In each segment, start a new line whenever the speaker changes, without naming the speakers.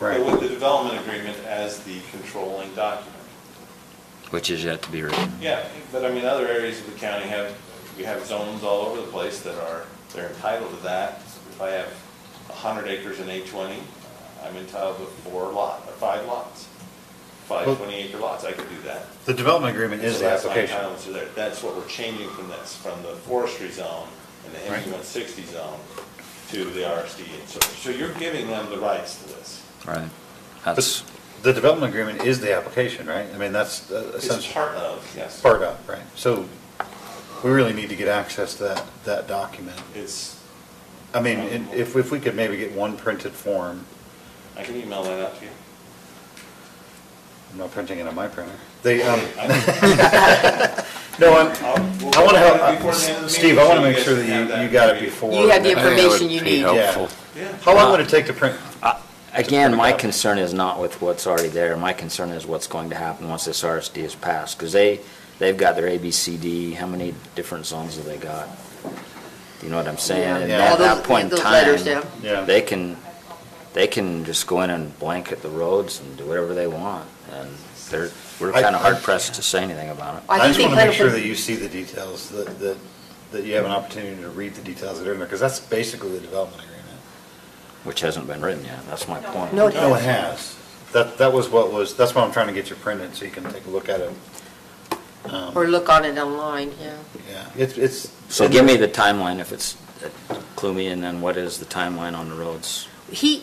Right.
With the development agreement as the controlling document.
which is yet to be written.
Yeah, but I mean, other areas of the county have, we have zones all over the place that are, they're entitled to that. If I have a hundred acres in A twenty, uh, I'm entitled to four lot, or five lots, five
Well-
twenty acre lots, I could do that.
The development agreement is
So
the
that's my
application.
entitlements are there. That's what we're changing from this, from the forestry zone and the
Right.
MU one sixty zone to the RSD. And so, so you're giving them the rights to this.
Right.
But
That's,
The development agreement is the application, right? I mean, that's uh,
It's
essentially
part of, yes.
part of, right? So we really need to get access to that, that document.
It's,
I mean, and if, if we could maybe get one printed form,
I can email that out to you.
I'm not printing it on my printer. They, um,
I-
no, I'm,
I'll- we'll-
I want to
before the end of the
have, uh, Steve, I want to
meeting,
make
so
sure
you guys can have
that you, you got it
ready.
before.
You have the
I think that would
information you
be
need.
Yeah.
helpful.
Yeah.
How long would it take to print?
Again, my concern is not with what's already there. My concern is what's going to happen once this RSD is passed, because they, they've got their A, B, C, D, how many different zones have they got? You know what I'm saying? And
Yeah. All
at
those-
that point in
those letters, yeah.
time,
Yeah.
they can, they can just go in and blanket the roads and do whatever they want, and they're, we're
I-
kind of
I-
hard pressed to say anything about it.
I just
think
want
they
to make
plan
sure
put-
that you see the details, that, that, that you have an opportunity to read the details that are in there, because that's basically the development agreement.
Which hasn't been written yet, that's my point.
No, it
No, it
hasn't.
has. That, that was what was, that's why I'm trying to get you printed, so you can take a look at it. Um,
Or look on it online, yeah.
Yeah, it's, it's.
So give me the timeline if it's, uh, clue me in then what is the timeline on the roads?
He,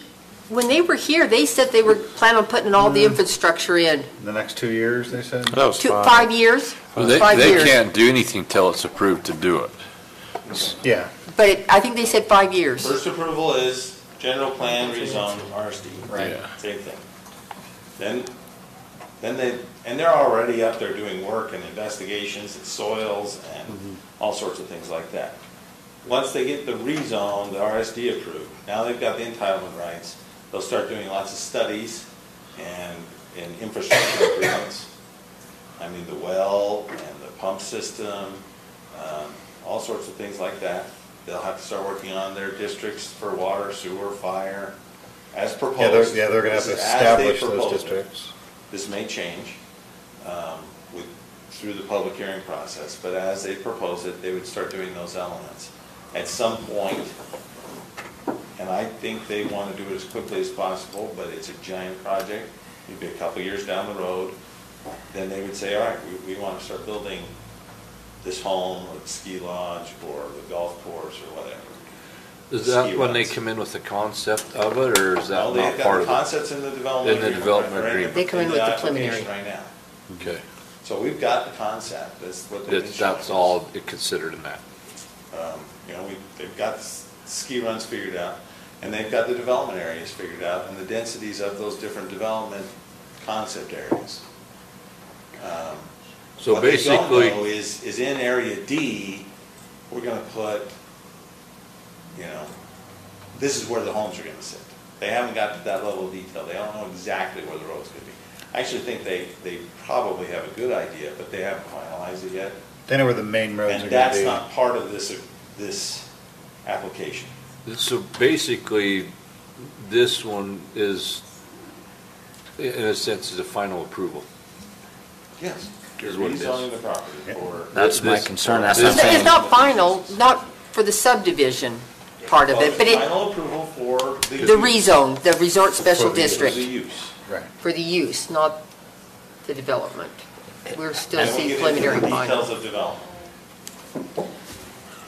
when they were here, they said they were planning on putting all the infrastructure in.
The next two years, they said?
That was
Two,
fine.
five years?
They,
Five
they
years.
can't do anything till it's approved to do it.
Yeah,
But it- I think they said five years.
First approval is general plan, rezone, RSD.
Right.
Yeah.
Same thing. Then, then they, and they're already up there doing work and investigations and soils and
Mm-hmm.
all sorts of things like that. Once they get the rezone, the RSD approved, now they've got the entitlement rights, they'll start doing lots of studies and, and infrastructure improvements. I mean, the well and the pump system, um, all sorts of things like that. They'll have to start working on their districts for water, sewer, fire, as proposed.
yeah, they're, yeah, they're gonna have to
This is as they
establish those
proposed it.
districts.
This may change um, with, through the public hearing process, but as they propose it, they would start doing those elements. At some point, and I think they want to do it as quickly as possible, but it's a giant project, maybe a couple years down the road, then they would say, all right, we, we want to start building this home, or the ski lodge, or the golf course, or whatever.
Is that
Ski
when they
runs.
come in with the concept of it, or is
Now,
that
they've
not
got the
part of it?
concepts in the development.
In the development
right?
agreement.
They come in with the preliminary.
application Right now.
Okay,
So we've got the concept, that's what they've been
That's-
showing
that's
us.
all it considered in that.
Um, You know, we, they've got s- ski runs figured out, and they've got the development areas figured out, and the densities of those different development concept areas. Um,
So
what they don't know
basically,
Is, is in area D, we're gonna put, you know, this is where the homes are gonna sit. They haven't got to that level of detail, they don't know exactly where the road's gonna be. I actually think they, they probably have a good idea, but they haven't finalized it yet.
They know where the main roads are
And that's
gonna
not part of this, this application.
so basically, this one is, i- in a sense, is a final approval.
Yes. You're
Is what it is.
rezoning the property for.
That's my
This-
concern, that's what I'm
It's
saying.
it's not final, not for the subdivision part of it, but it,
Final approval for the.
the rezone, the resort special
For the use.
For the
district,
use.
be. Right.
for the use, not the development. We're still
And we'll
seeing
get into
preliminary
the
final.
Details of development.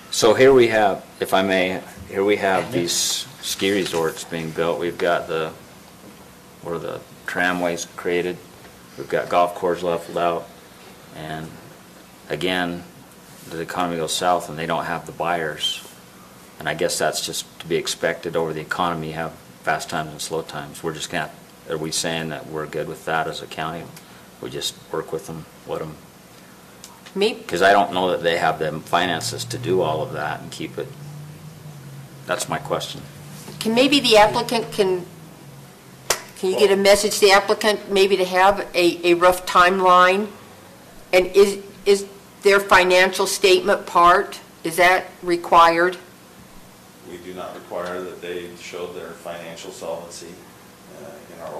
So here we have, if I may, here we have these ski resorts being built. We've got the, where the tramways created. We've got golf course leveled out. And again, the economy goes south and they don't have the buyers. And I guess that's just to be expected over the economy, you have fast times and slow times. We're just gonna, are we saying that we're good with that as a county? We just work with them, let them
Maybe,
because I don't know that they have the finances to do all of that and keep it. That's my question.
can, maybe the applicant can, can you get a message to the applicant, maybe to have a, a rough timeline? And is, is their financial statement part, is that required?
We do not require that they show their financial solvency uh,